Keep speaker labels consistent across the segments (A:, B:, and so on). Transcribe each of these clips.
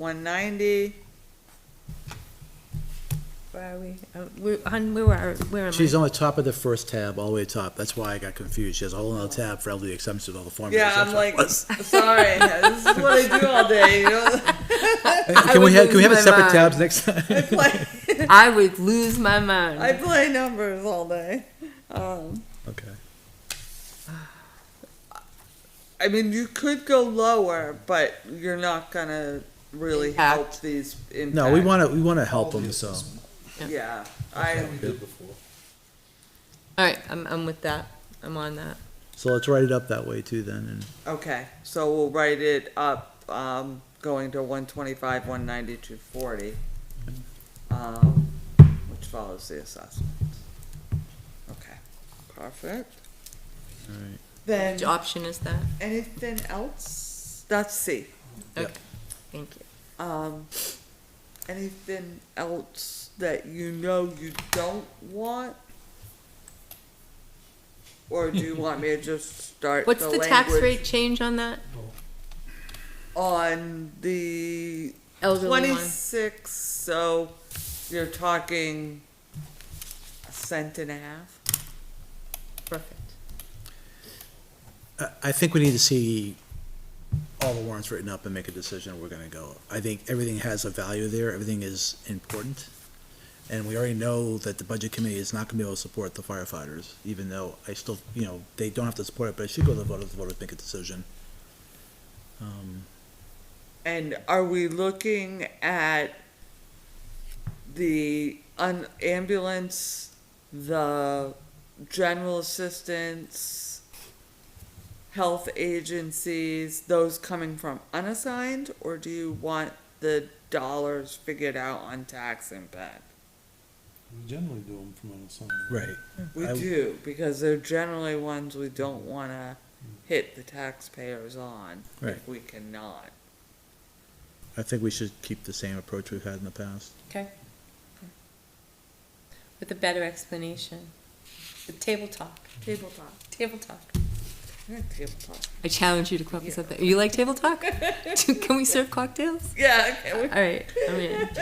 A: one ninety,
B: Where are we? Uh, We're, on- where are, where am I?
C: She's on the top of the first tab, all the way top. That's why I got confused. She has a whole other tab for elderly exemptions with all the formulas.
A: yeah, I'm
C: That's what it
A: like,
C: was.
A: sorry, this is what I do all day, you know?
B: I
C: Can we
B: would
C: have, can we
B: lose
C: have a
B: my mind.
C: separate tabs next time?
A: I play,
B: I would lose my mind.
A: I play numbers all day. Um,
C: Okay.
A: I mean, you could go lower, but you're not gonna really
B: Impact.
A: help these impact.
C: No, we wanna, we wanna help them, so.
A: Yeah, I,
B: All right, I'm, I'm with that. I'm on that.
C: So let's write it up that way too then, and
A: okay, so we'll write it up, um, going to one twenty-five, one ninety, two forty. Um, which follows the assessment. Okay, perfect.
C: Alright.
A: Then,
B: Which option is that?
A: anything else? That's C.
B: Thank you.
A: Um, anything else that you know you don't want? Or do you want me to just start
B: What's the tax
A: language
B: rate change on that
A: on the
B: elderly one?
A: twenty-six? So you're talking a cent and a half.
B: Perfect.
C: I, I think we need to see all the warrants written up and make a decision where we're gonna go. I think everything has a value there, everything is important. And we already know that the budget committee is not gonna be able to support the firefighters, even though I still, you know, they don't have to support it, but it should go to the voters, the voters make a decision. Um,
A: And are we looking at the un- ambulance, the general assistance, health agencies, those coming from unassigned, or do you want the dollars figured out on tax impact?
D: We generally do them from unassigned.
C: right,
A: We
C: I-
A: do, because they're generally ones we don't wanna hit the taxpayers on, if
C: Right.
A: we cannot.
C: I think we should keep the same approach we've had in the past.
B: Okay. With a better explanation. The table talk.
A: Table talk.
B: Table talk.
A: Table talk.
B: I challenge you to come up with something. You like table talk? Can we serve cocktails?
A: Yeah, okay, we
B: All right, I'm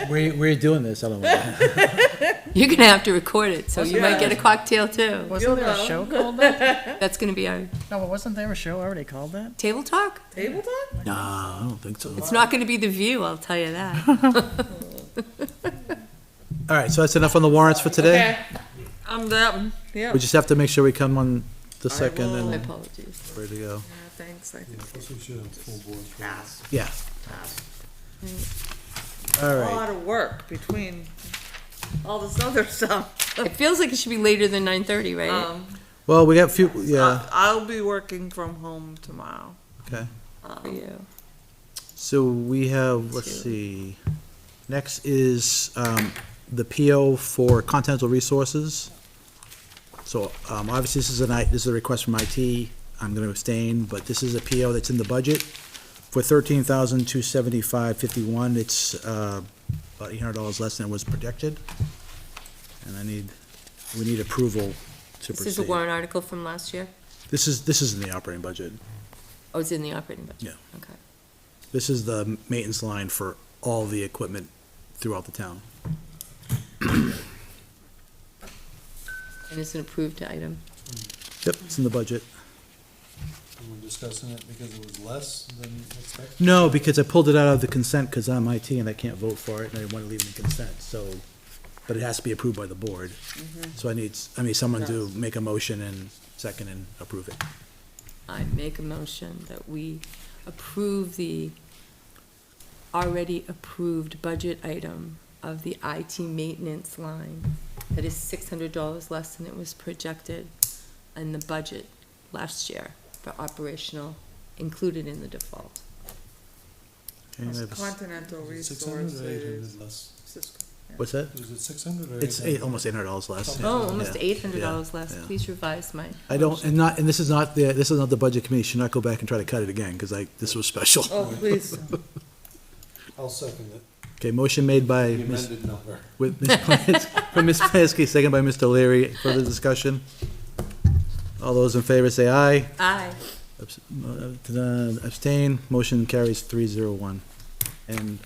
B: in.
C: We're, we're doing this, I don't know.
B: You're gonna have to record it, so you might
A: Yeah.
B: get a cocktail too.
A: You'll
E: Wasn't there a
A: know.
E: show called that?
B: That's gonna be our
E: No, but wasn't there a show already called that?
B: table talk.
A: Table talk?
C: No, I don't think so.
B: It's not gonna be the view, I'll tell you that.
C: All right, so that's enough on the warrants for today.
A: I'm done. Yeah.
C: We just have to make sure we come on the second
A: will-
B: My
C: and
B: apologies.
C: ready to go.
A: Thanks, I think.
D: Yeah, plus we should have full board. for that.
A: Pass.
C: Yeah. All
A: A
C: right,
A: lot of work between all this other stuff.
B: It feels like it should be later than nine thirty, right?
A: Um,
C: well, we got few,
B: Uh,
C: yeah,
A: I- I'll be working from home tomorrow.
C: okay.
B: For you.
C: So we have, let's see, next is, um, the PO for Continental Resources. So, um, obviously, this is a night, this is a request from IT, I'm gonna abstain, but this is a PO that's in the budget for thirteen thousand two seventy-five fifty-one, it's, uh, about eight hundred dollars less than was projected. And I need, we need approval to
B: This is a
C: proceed.
B: warrant article from last year.
C: This is, this is in the operating budget,
B: Oh, it's in the operating budget.
C: yeah.
B: Okay.
C: This is the maintenance line for all the equipment throughout the town.
B: And it's an approved item.
C: Yep, it's in the budget.
D: We were discussing it because it was less than expected.
C: No, because I pulled it out of the consent because I'm IT and I can't vote for it and I didn't want to leave it in consent, so, but it has to be approved by the board. So I need, s- I need someone to make a motion and second and approve it.
B: I make a motion that we approve the already approved budget item of the IT maintenance line that is six hundred dollars less than it was projected in the budget last year for operational, included in the default.
C: Okay, I have a s-
A: Continental
D: Six hundred or eight
A: Resources.
D: hundred less?
C: What's that?
D: Was it six hundred or?
C: It's eight, almost eight hundred dollars less.
B: Oh, almost
C: Yeah,
B: eight hundred dollars
C: yeah,
B: less.
C: yeah.
B: Please revise my.
C: I don't, and not, and this is not the, this is not the budget committee, should not go back and try to cut it again, because I, this was special.
A: Oh, please.
D: I'll second it.
C: Okay, motion made by
D: The
C: Ms.
D: amended number.
C: With Ms. Plansky, from Ms. Plansky, second by Mr. Leary. Further discussion? All those in favor say aye.
B: Aye.
C: Abs- uh, Abstain. Motion carries three zero one. And